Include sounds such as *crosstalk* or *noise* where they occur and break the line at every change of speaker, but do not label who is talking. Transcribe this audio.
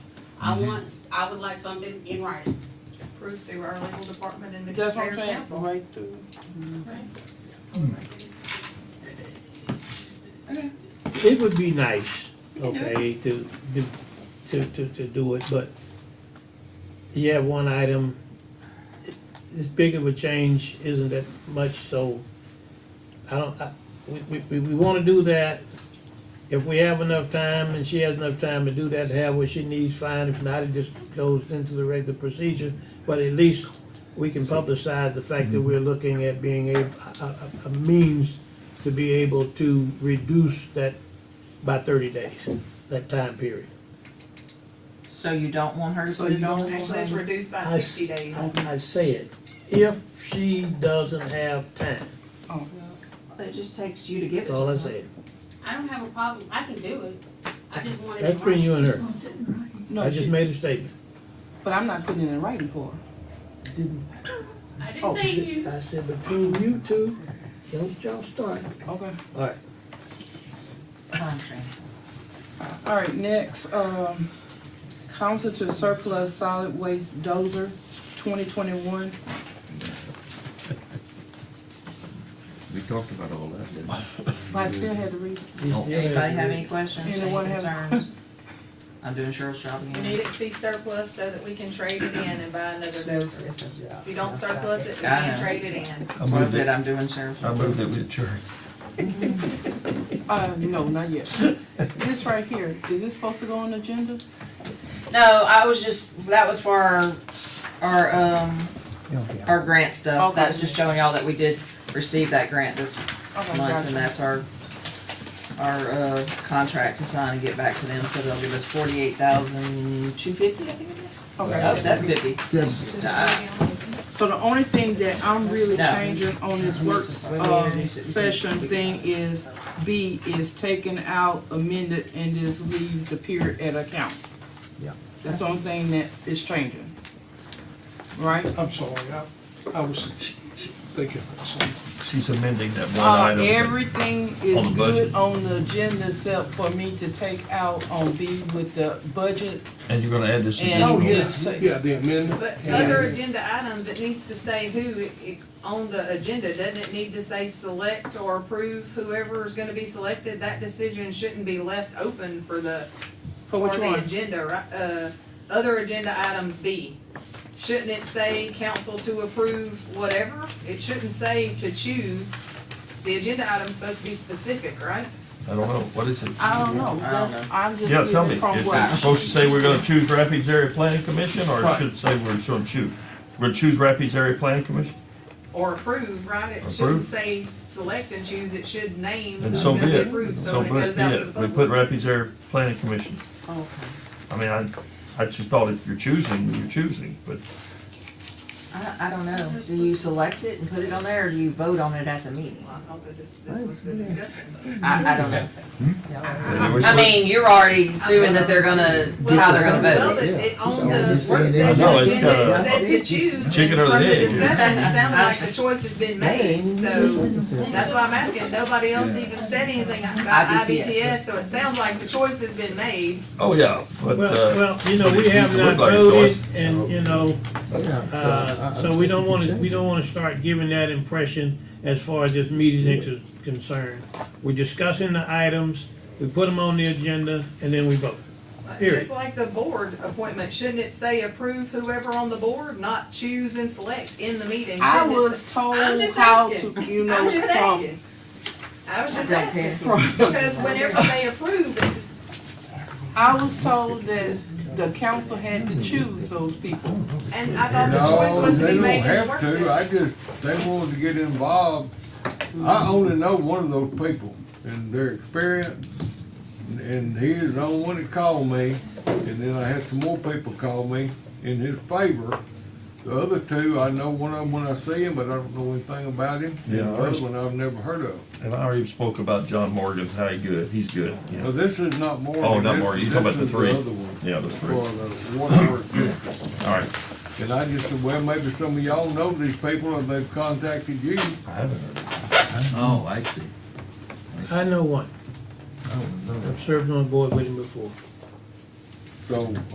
I want, I would like something in writing.
approved through our legal department and the
That's what I'm
mayor's
saying,
council.
right to.
It would be nice,
You can do it.
okay, to, do- to, to, to do it, but you have one item, as big of a change isn't that much, so I don't, I, we, we, we wanna do that. If we have enough time and she has enough time to do that, to have what she needs, fine, if not, it just goes into the regular procedure. But at least we can publicize the fact that we're looking at being a, a, a- a means to be able to reduce that by thirty days, that time period.
So you don't want her to
So
put
you
it
don't-
on?
Actually, it's reduced
I
by
s-
sixty days.
I I say it, if she doesn't have time,
It just takes you to give it.
that's all I
to her.
say.
I don't have a problem, I can do it, I just want it in
That's between
writing.
you and her, I
No,
just
she,
made a statement.
but I'm not putting it in writing for her.
Didn't-
I
Oh,
didn't say you.
I said between you two, don't y'all start.
Okay.
Alright,
Contract.
All right, next, um, council to surplus solid waste dozer twenty twenty-one.
We talked about all that, didn't we?
I still had to read.
you still have
Anybody
to
have
read.
any questions, any
Anyone have-
concerns? I'm doing Cheryl's job
We need
again.
it to be surplus so that we can trade it in and buy another dozer. If you don't surplus it, we
I
can't
know.
trade it in.
I
That's what I
moved
said,
it,
I'm doing Cheryl's
I
job.
moved it with Jerry.
Uh, no, not *laughs* yet. This right here, is this supposed to go on the agenda?
No, I was just, that was for our, our, um, our grant stuff. That's
Okay.
just showing y'all that we did receive that grant this
Okay,
month,
gotcha.
and that's our, our, uh, contract to sign and get back to them, so they'll give us forty-eight thousand two fifty, I think it is. Oh,
Okay,
seven fifty. Seven.
so the only thing that I'm really
No.
changing on this work,
We
um,
introduced it.
session thing is B is taken out, amended, and just leave the period at account.
Yeah.
That's the only thing that is changing. Right?
I'm sorry, I, I was thinking about something.
She's amending that one
Oh,
Uh,
item. but-
everything is
on the
good
budget.
on the agenda except for me to take out on B with the budget
And you're gonna add this
and.
Oh,
additional.
yeah.
just take-
Yeah, the amendment.
But
Yeah.
other agenda items, it needs to say who, it- it- on the agenda, doesn't it need to say select or approve whoever is gonna be selected? That decision shouldn't be left open for the,
For
for
which
the
one?
agenda, right? Uh, other agenda items B. Shouldn't it say council to approve whatever? It shouldn't say to choose. The agenda item's supposed to be specific, right?
I don't know, what is it?
I don't know,
I don't
that's,
know.
I'm just
Yeah, tell me,
getting
is
from what I-
it supposed to say we're gonna choose Rapids Area Planning Commission, or it
Right.
should say we're gonna choose, we're gonna choose Rapids Area Planning Commission?
Or approve, right? It shouldn't
Approve.
say select and choose, it should name
And
who's
so
gonna
be
be
it,
approved, so
so
when it
be
goes out to
it,
the
we put
public.
Rapids Area Planning Commission.
Okay.
I mean, I, I just thought if you're choosing, you're choosing, but
I, I don't know. Do you select it and put it on there, or do you vote on it at the meeting?
I thought that this, this was the discussion.
I, I don't know.
they were
I mean, you're already assuming that they're gonna, how they're gonna
Well,
vote.
it, it, on the work
I
session
know, it's
agenda, it
kinda-
said to choose
Chicken or the
from the
egg.
discussion, it sounded like the choice has been made, so that's why I'm asking, nobody else even said anything about
IBTS.
IBTS, so it sounds like the choice has been made.
Oh, yeah, but,
Well,
uh,
well, you know,
but
we
it
have
used to
not
look like it's
voted
always-
and, you know,
Yeah,
Uh, so we don't wanna, we don't wanna start giving that impression as far as this meeting is concerned. We're discussing the items, we put them on the agenda, and then we vote. Period.
Just like the board appointment, shouldn't it say approve whoever on the board, not choose and select in the meeting?
I
Shouldn't it
was told
I'm just
how
asking.
to, you
say-
know,
I'm just
from,
asking, I was just
I don't care.
asking,
from,
because whenever they approve, it's
I was told that the council had to choose those people.
And I thought the choice was to be made in the work
No, they don't have to,
session.
I just, they wanted to get involved. I only know one of those people and their experience, and he is the only one that called me. And then I had some more people call me in his favor. The other two, I know one of them when I see him, but I don't know anything about him. And
Yeah,
the
I
other
was-
one I've never heard of.
and I already spoke about John Morgan, how he good, he's good, you
Now,
know.
this is not Morgan.
Oh, not
this-
Morgan. You talking about the three?
This is the other one.
Yeah, that's
For
three, all
the one work district.
right.
And I just said, well, maybe some of y'all know these people and they've contacted you.
I haven't heard of it. Oh, I see.
I know one, I've served on a board with him before.
So